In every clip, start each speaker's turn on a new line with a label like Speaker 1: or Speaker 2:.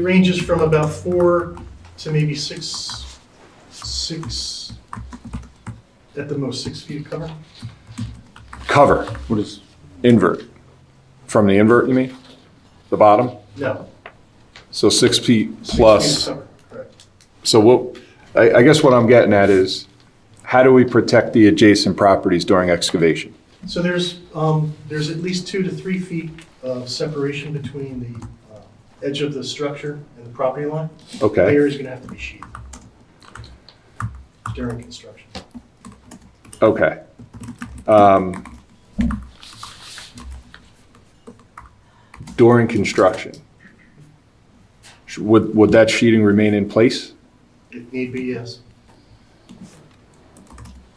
Speaker 1: It ranges from about four to maybe six, six, at the most, six feet of cover.
Speaker 2: Cover. What is? Invert. From the invert, you mean? The bottom?
Speaker 1: No.
Speaker 2: So six feet
Speaker 1: six feet of
Speaker 2: plus.
Speaker 1: cover, correct.
Speaker 2: So what, I, I guess what I'm getting at is, how do we protect the adjacent properties during excavation?
Speaker 1: So there's, um, there's at least two to three feet of separation between the uh, edge of the structure and the property line.
Speaker 2: Okay,
Speaker 1: Layer is going to have to be sheathed during construction.
Speaker 2: okay. Um, During construction, sh- would, would that sheeting remain in place?
Speaker 1: If need be, yes.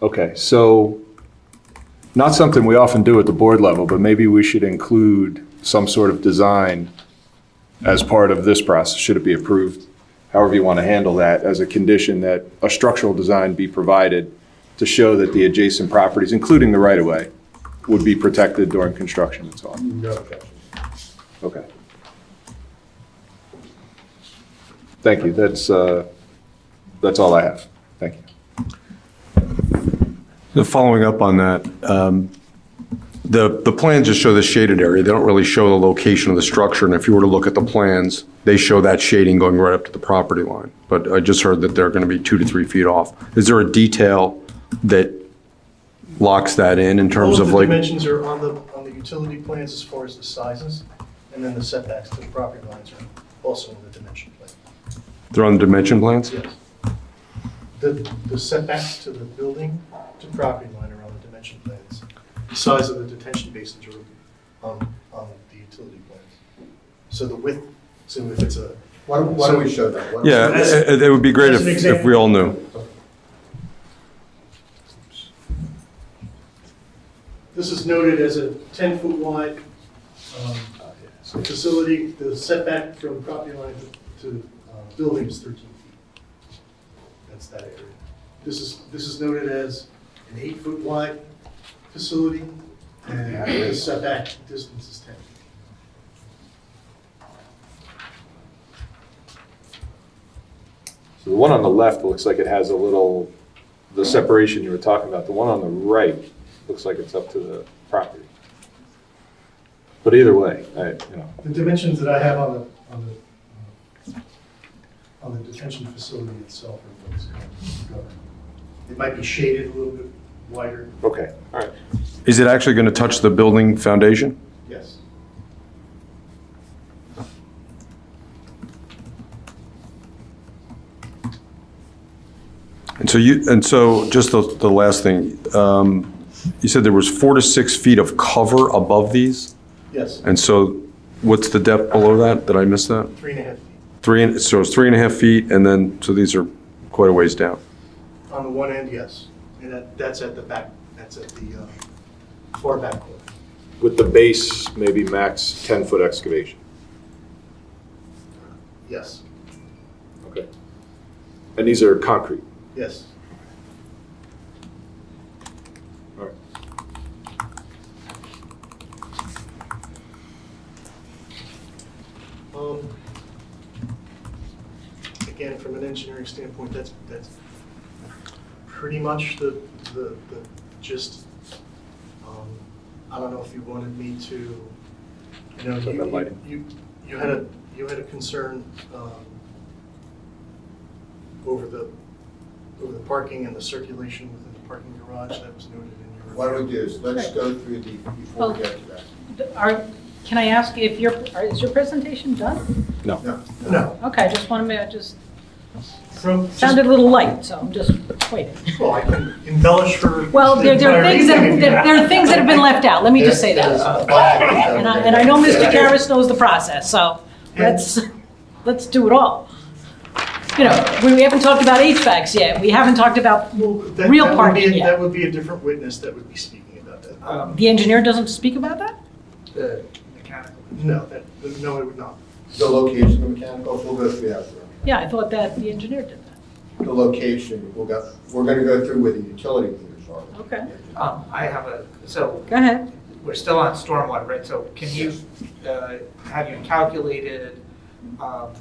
Speaker 2: Okay, so, not something we often do at the board level, but maybe we should include some sort of design as part of this process, should it be approved, however you want to handle that, as a condition that a structural design be provided to show that the adjacent properties, including the right-of-way, would be protected during construction and so on.
Speaker 3: No objection.
Speaker 2: Okay. Thank you, that's, uh, that's all I have. Thank you.
Speaker 4: Following up on that, um, the, the plans just show the shaded area. They don't really show the location of the structure. And if you were to look at the plans, they show that shading going right up to the property line. But I just heard that they're going to be two to three feet off. Is there a detail that locks that in in terms
Speaker 1: All
Speaker 4: of
Speaker 1: the
Speaker 4: like?
Speaker 1: dimensions are on the, on the utility plans as far as the sizes, and then the setbacks to the property lines are also in the dimension plan.
Speaker 4: They're on the dimension plans?
Speaker 1: Yes. The, the setbacks to the building to property line are on the dimension plans. The size of the detention basins are on, on the utility plans. So the width, so if it's a,
Speaker 3: Why don't, why don't we show that? Why don't we-
Speaker 4: Yeah, it, it would be great
Speaker 1: As
Speaker 4: if,
Speaker 1: an
Speaker 4: if we all knew.
Speaker 1: this is noted as a ten-foot wide, um, facility, the setback from property line to- to, uh, building is thirteen feet. That's that area. This is, this is noted as an eight-foot wide facility, and the setback distance is ten.
Speaker 2: So the one on the left looks like it has a little, the separation you were talking about, the one on the right looks like it's up to the property. But either way, I, you know,
Speaker 1: The dimensions that I have on the, on the, uh, on the detention facility itself are what's covered. It might be shaded a little bit wider,
Speaker 2: okay, all right.
Speaker 4: Is it actually going to touch the building foundation?
Speaker 1: yes.
Speaker 4: And so you, and so just the, the last thing, um, you said there was four to six feet of cover above these?
Speaker 1: Yes,
Speaker 4: And so what's the depth below that? Did I miss that?
Speaker 1: three and a half feet
Speaker 4: Three, and- so it's three and a half feet and then, so these are quite a ways down.
Speaker 1: on the one end, yes. And that, that's at the back, that's at the uh, far back corner.
Speaker 2: With the base, maybe max 10-foot excavation.
Speaker 1: Yes,
Speaker 2: Okay. And these are concrete.
Speaker 1: yes.
Speaker 2: All right.
Speaker 1: Um, Again, from an engineering standpoint, that's, that's pretty much the, the, the gist. Um, I don't know if you wanted me to, you know,
Speaker 2: Talk about
Speaker 1: you,
Speaker 2: lighting.
Speaker 1: you, you had a, you had a concern, um, over the, over the parking and the circulation within the parking garage that was noted in your.
Speaker 3: Why don't we do this? Let's go through the, before we get to that.
Speaker 5: Are, can I ask if your, are- is your presentation done?
Speaker 3: No.
Speaker 1: No,
Speaker 5: Okay, I just want to, I just,
Speaker 1: from, just-
Speaker 5: sounded a little light, so I'm just waiting.
Speaker 1: well, I can embellish her.
Speaker 5: Well, there, there are
Speaker 1: entire
Speaker 5: things
Speaker 1: evening
Speaker 5: that,
Speaker 1: if you
Speaker 5: there there are things that have been left out, let me just say
Speaker 3: There's-
Speaker 5: that. Uh,
Speaker 3: there's a bunch of things
Speaker 5: And I, and I know
Speaker 3: that-
Speaker 5: Mr. Garris knows the process, so let's, let's do it all. You know, we we haven't talked about HVACs yet, we haven't talked about,
Speaker 1: Well, that-
Speaker 5: Real
Speaker 1: that would
Speaker 5: parking,
Speaker 1: be-
Speaker 5: yeah.
Speaker 1: That would be a different witness that would be speaking about that. Um,
Speaker 5: the engineer doesn't speak about that?
Speaker 1: the- No, that, no, it would not.
Speaker 3: The location of mechanical, we'll go through that.
Speaker 5: Yeah, I thought that the engineer did that.
Speaker 3: The location, we'll go, we're gonna go through where the utility meters are.
Speaker 5: Okay.
Speaker 6: Um, I have a, so
Speaker 5: Go ahead.
Speaker 6: we're still on stormwater, right? So can you, uh, have you calculated, um,